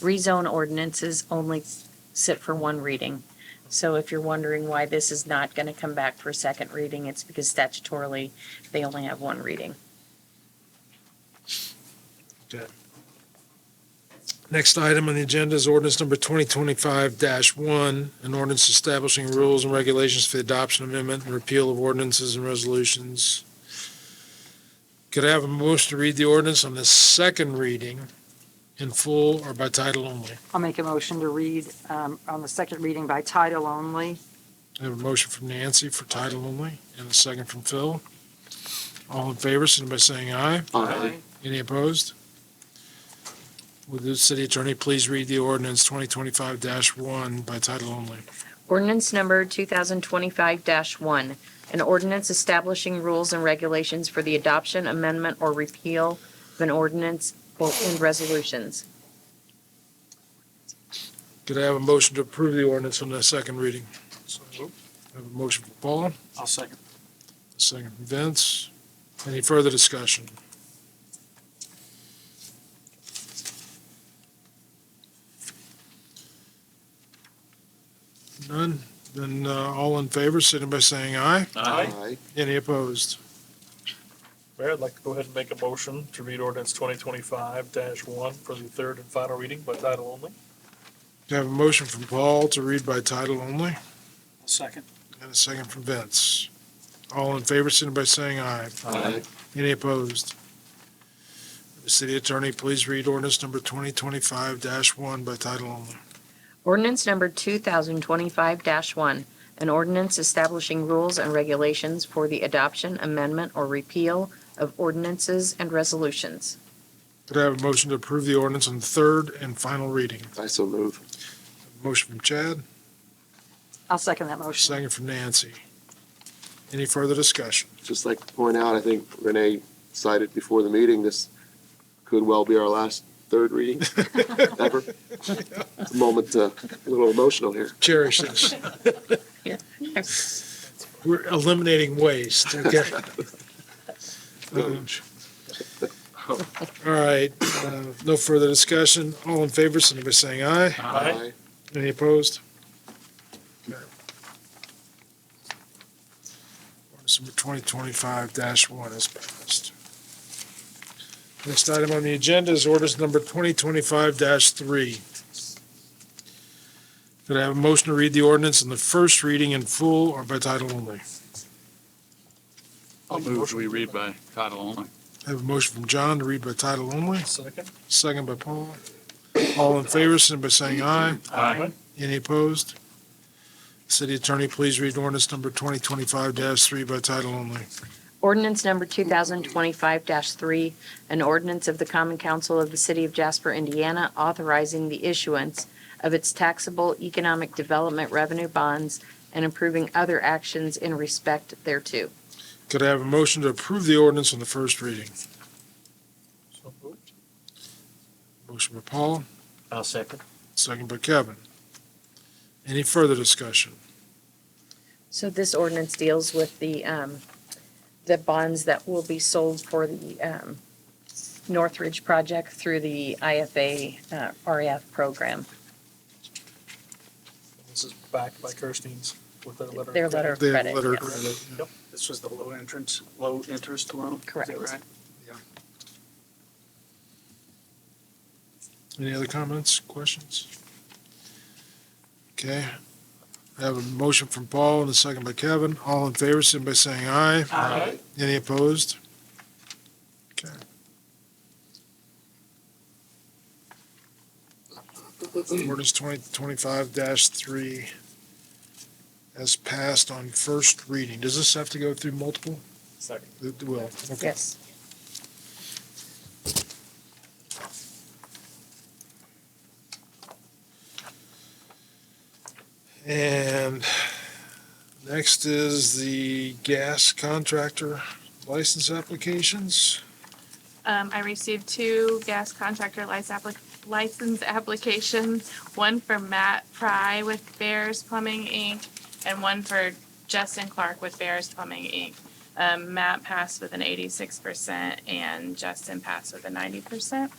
rezone ordinances only sit for one reading. So if you're wondering why this is not going to come back for a second reading, it's because statutorily, they only have one reading. Okay. Next item on the agenda is ordinance number 2025-1, an ordinance establishing rules and regulations for the adoption amendment and repeal of ordinances and resolutions. Could I have a motion to read the ordinance on the second reading in full or by title only? I'll make a motion to read um, on the second reading by title only. I have a motion from Nancy for title only and a second from Phil. All in favor, signify by saying aye. Aye. Any opposed? Would the city attorney please read the ordinance 2025-1 by title only? Ordinance number 2025-1, an ordinance establishing rules and regulations for the adoption, amendment, or repeal of an ordinance or and resolutions. Could I have a motion to approve the ordinance on the second reading? I have a motion from Paul, I'll second. a second from Vince. Any further discussion? None? Then uh, all in favor, signify by saying aye. Aye. Any opposed? Mayor, I'd like to go ahead and make a motion to read ordinance twenty twenty-five one for the third and final reading by title only. Do I have a motion from Paul to read by title only? I'll second. And a second from Vince. All in favor, signify by saying aye. Any opposed? The city attorney, please read ordinance number 2025-1 by title only. Ordinance number 2025-1, an ordinance establishing rules and regulations for the adoption, amendment, or repeal of ordinances and resolutions. Could I have a motion to approve the ordinance on third and final reading? I so move. Motion from Chad, I'll second that motion. second from Nancy. Any further discussion? Just like to point out, I think Renee cited before the meeting, this could well be our last third reading ever. It's a moment, uh, a little emotional here. Cherish this. We're eliminating waste, okay? Um, All right, uh, no further discussion. All in favor, signify by saying aye. Aye. Any opposed? Okay. Ordinance number twenty twenty-five one is passed. Next item on the agenda is ordinance number twenty twenty-five three. Could I have a motion to read the ordinance in the first reading in full or by title only? I'll move, we read by title only. I have a motion from John to read by title only, Second. second by Paul. All in favor, signify by saying aye. Any opposed? City Attorney, please read ordinance number 2025-3 by title only. Ordinance number 2025-3, an ordinance of the Common Council of the City of Jasper, Indiana, authorizing the issuance of its taxable economic development revenue bonds and approving other actions in respect thereto. Could I have a motion to approve the ordinance on the first reading? So moved. Motion by Paul, I'll second. second by Kevin. Any further discussion? So this ordinance deals with the, um, the bonds that will be sold for the, um, Northridge project through the IFA, uh, REF program, This is backed by Kirstein's with their letter. of Their letter of credit. They have credit. letter of yes. credit. Yep. This was the low entrance, low interest loan? Is that Correct. right? Any other comments, questions? Okay. I have a motion from Paul and a second by Kevin. All in favor, signify by saying aye. Aye. Any opposed? Okay. Ordinance twenty twenty-five three has passed on first reading. Does this have to go through multiple? Second. It will. Okay. Yes. And next is the gas contractor license applications. Um, I received two gas contractor lic- applic- license applications, one for Matt Fry with Bears Plumbing Inc. and one for Justin Clark with Bears Plumbing Inc. Um, Matt passed with an eighty-six percent and Justin passed with a ninety percent.